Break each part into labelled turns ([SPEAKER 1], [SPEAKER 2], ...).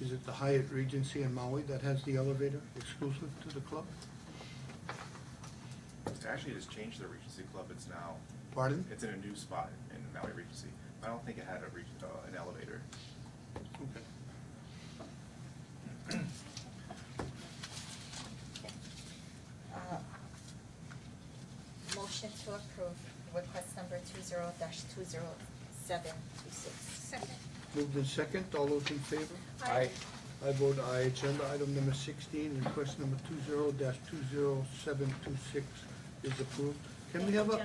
[SPEAKER 1] Is it the Hyatt Regency in Maui that has the elevator exclusive to the club?
[SPEAKER 2] Actually, it's changed the Regency Club, it's now,
[SPEAKER 1] Pardon?
[SPEAKER 2] it's in a new spot in Maui Regency. I don't think it had a reg, uh, an elevator.
[SPEAKER 1] Okay.
[SPEAKER 3] Uh, Motion to approve request number two zero dash two zero seven two six.
[SPEAKER 4] Second.
[SPEAKER 1] Moved in second, all those in favor?
[SPEAKER 4] Aye.
[SPEAKER 1] I vote aye. Agenda item number sixteen, request number two zero dash two zero seven two six is approved. Can we have a?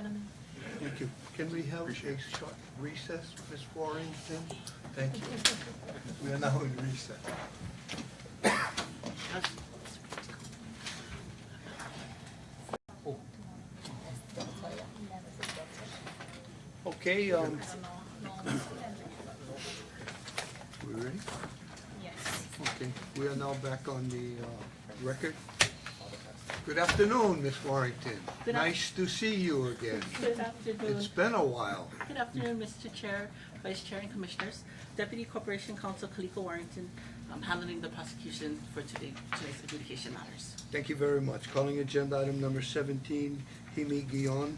[SPEAKER 1] Thank you. Can we have a
[SPEAKER 2] Appreciate it.
[SPEAKER 1] short recess, Ms. Warrington? Thank you. We are now in recess. Okay, um, we ready?
[SPEAKER 4] Yes.
[SPEAKER 1] Okay, we are now back on the uh, record. Good afternoon, Ms. Warrington.
[SPEAKER 5] Good af-
[SPEAKER 1] Nice to see you again.
[SPEAKER 5] Good afternoon.
[SPEAKER 1] It's been a while.
[SPEAKER 5] Good afternoon, Mr. Chair, Vice Chair, and Commissioners. Deputy Corporation Counsel Kaliko Warrington, I'm handling the prosecution for today, today's adjudication matters.
[SPEAKER 1] Thank you very much. Calling agenda item number seventeen, Jaime Guion.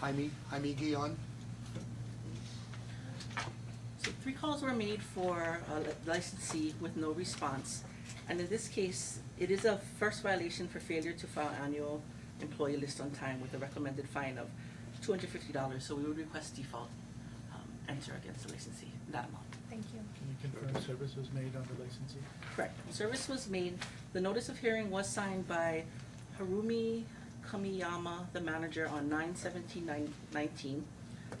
[SPEAKER 1] Jaime, Jaime Guion.
[SPEAKER 5] So three calls were made for a li- licensee with no response. And in this case, it is a first violation for failure to file annual employee list on time with a recommended fine of two hundred fifty dollars. So we would request default, um, enter against the licensee, that amount.
[SPEAKER 4] Thank you.
[SPEAKER 6] Can you confirm service was made on the licensee?
[SPEAKER 5] Correct. Service was made. The notice of hearing was signed by Harumi Kamiyama, the manager, on 9/17/19,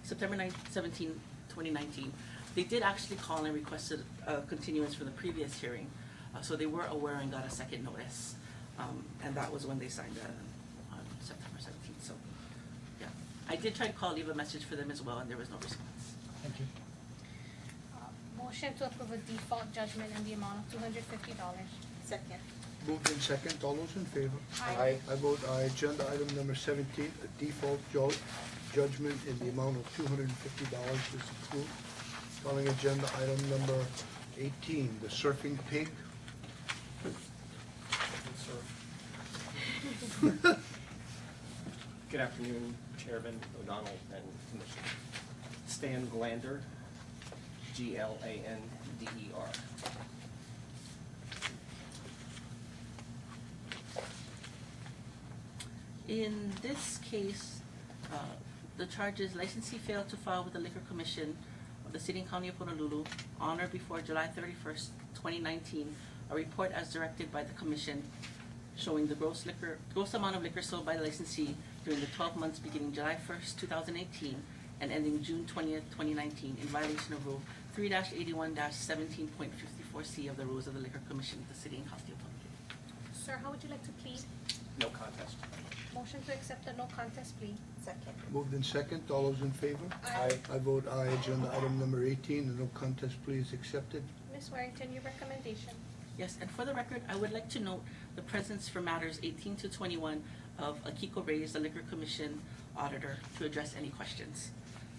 [SPEAKER 5] September 9, 17, 2019. They did actually call and requested a continuance from the previous hearing, uh, so they were aware and got a second notice. Um, And that was when they signed that, on September seventeenth, so, yeah. I did try to call, leave a message for them as well, and there was no response.
[SPEAKER 6] Thank you.
[SPEAKER 4] Uh, Motion to approve a default judgment in the amount of two hundred fifty dollars.
[SPEAKER 3] Second.
[SPEAKER 1] Moved in second, all those in favor?
[SPEAKER 4] Aye.
[SPEAKER 1] I vote aye. Agenda item number seventeen, a default ju- judgment in the amount of two hundred and fifty dollars is approved. Calling agenda item number eighteen, the surfing pig.
[SPEAKER 7] Good afternoon, Chairman O'Donnell and Commissioner. Stan Glander, G-L-A-N-D-E-R.
[SPEAKER 5] In this case, uh, the charges licensee failed to file with the Liquor Commission of the City and County of Honolulu on or before July thirty-first, twenty nineteen, a report as directed by the commission showing the gross liquor, gross amount of liquor sold by the licensee during the twelve months beginning July first, two thousand eighteen, and ending June twentieth, twenty nineteen, in violation of Rule three eighty-one seventeen point fifty-four C of the Rules of the Liquor Commission of the City and County of Honolulu.
[SPEAKER 4] Sir, how would you like to plead?
[SPEAKER 7] No contest.
[SPEAKER 4] Motion to accept the no contest plea.
[SPEAKER 3] Second.
[SPEAKER 1] Moved in second, all those in favor?
[SPEAKER 7] Aye.
[SPEAKER 1] I vote aye. Agenda item number eighteen, the no contest plea is accepted.
[SPEAKER 4] Ms. Warrington, your recommendation.
[SPEAKER 5] Yes, and for the record, I would like to note the presence for matters eighteen to twenty-one of Akiko Reyes, the Liquor Commission Auditor, to address any questions.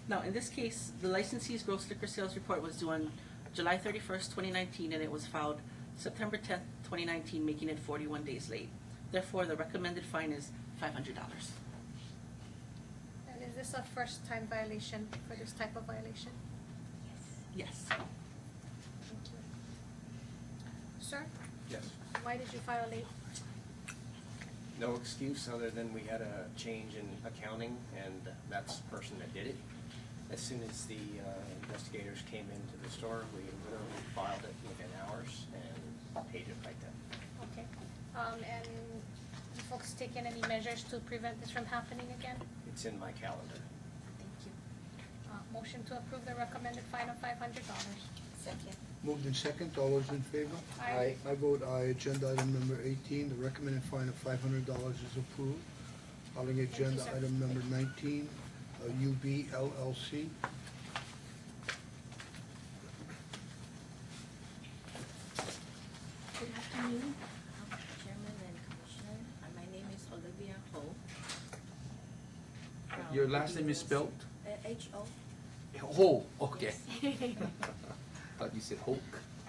[SPEAKER 5] Now, in this case, the licensee's gross liquor sales report was due on July thirty-first, twenty nineteen, and it was filed September tenth, twenty nineteen, making it forty-one days late. Therefore, the recommended fine is five hundred dollars.
[SPEAKER 4] And is this a first time violation for this type of violation?
[SPEAKER 5] Yes.
[SPEAKER 4] Thank you. Sir,
[SPEAKER 7] Yes.
[SPEAKER 4] why did you file late?
[SPEAKER 7] No excuse other than we had a change in accounting and that's the person that did it. As soon as the uh, investigators came into the store, we literally filed it within hours and paid it right then.
[SPEAKER 4] Okay. Um, and you folks taken any measures to prevent this from happening again?
[SPEAKER 7] It's in my calendar.
[SPEAKER 3] Thank you.
[SPEAKER 4] Uh, motion to approve the recommended fine of five hundred dollars.
[SPEAKER 3] Second.
[SPEAKER 1] Moved in second, all those in favor?
[SPEAKER 4] Aye.
[SPEAKER 1] I vote aye. Agenda item number eighteen, the recommended fine of five hundred dollars is approved. Calling
[SPEAKER 4] you,
[SPEAKER 1] agenda
[SPEAKER 4] sir.
[SPEAKER 1] item number nineteen, uh, UB LLC.
[SPEAKER 8] Good afternoon, um, Chairman and Commissioner. Uh, My name is Olivia Ho. from
[SPEAKER 9] Your last name is
[SPEAKER 8] USC.
[SPEAKER 9] spelled
[SPEAKER 8] Uh, H O.
[SPEAKER 9] Ho, okay.
[SPEAKER 8] Yes.
[SPEAKER 9] Thought you said Hulk.